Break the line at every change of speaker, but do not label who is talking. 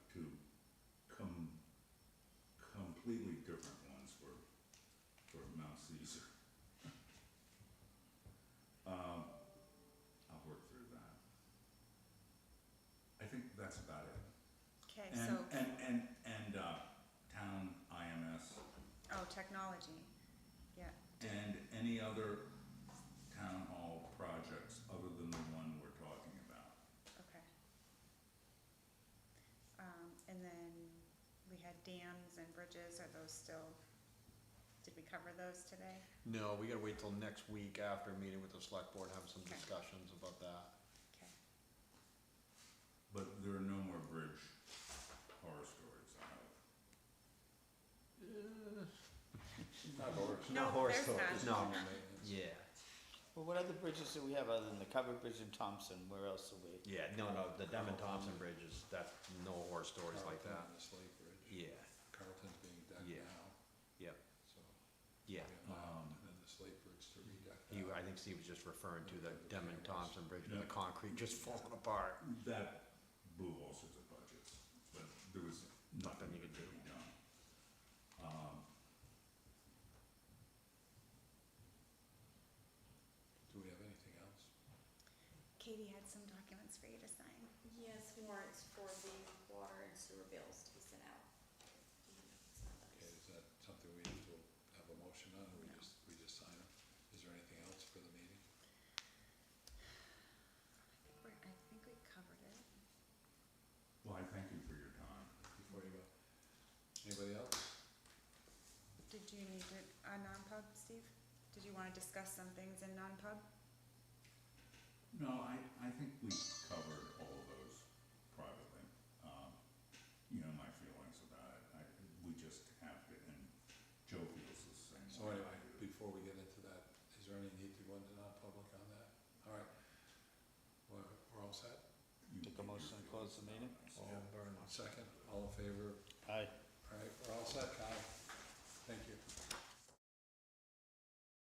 different ones for, for Mount Caesar. Um, I'll work through that. I think that's about it.
Okay,
And,
so,
and, and, and, uh, town IMS
oh, technology, yeah.
and any other town hall projects other than the one we're talking about.
Okay. Um, and then we had dams and bridges, are those still, did we cover those today?
No, we gotta wait till next week after meeting with the select board, having some
Okay.
discussions about that.
Okay,
But there are no more bridge horror stories, I hope.
Not horse.
No, there's
stories,
none.
no. Yeah,
Well, what other bridges do we have other than the covered bridge in Thompson? Where else do we?
yeah, no, no, the Devon Thompson Bridge is, that's no horror stories like that.
Carlton, The Slate Bridge.
Yeah,
Carlton's being
Yeah.
decked now,
yep,
so.
yeah. um,
we have that, And then the Slate Bridge to redeck.
He,
that.
I think Steve was just referring to the Devon Thompson Bridge with the concrete just falling apart.
That blew all sorts of budgets, but there was nothing
Nothing
you
you
could do.
could
Do we have anything else?
Katie had some documents for you to sign.
Yes, warrants for the water and sewer bills to be sent out.
Okay, is that something we have to have a motion on, or we
No.
just, we just sign it? Is there anything else for the meeting?
We're- I think we covered it.
Well, I thank you for your time.
Before you go, anybody else?
Did you need to, a non-pub, Steve? Did you wanna discuss some things in non-pub?
No, I, I think we covered all of those privately. Um, You know, my feelings about it, I, we just have to, and Joe feels the same.
So
way I
anyway,
do.
before we get into that, is there any need to go into non-public on that? All right, we're, we're all set?
You
Take a
get your
motion to close the
feelings
meeting?
about it.
Oh, very much.
Second, all in favor?
Aye.
All right, we're all set, Kyle.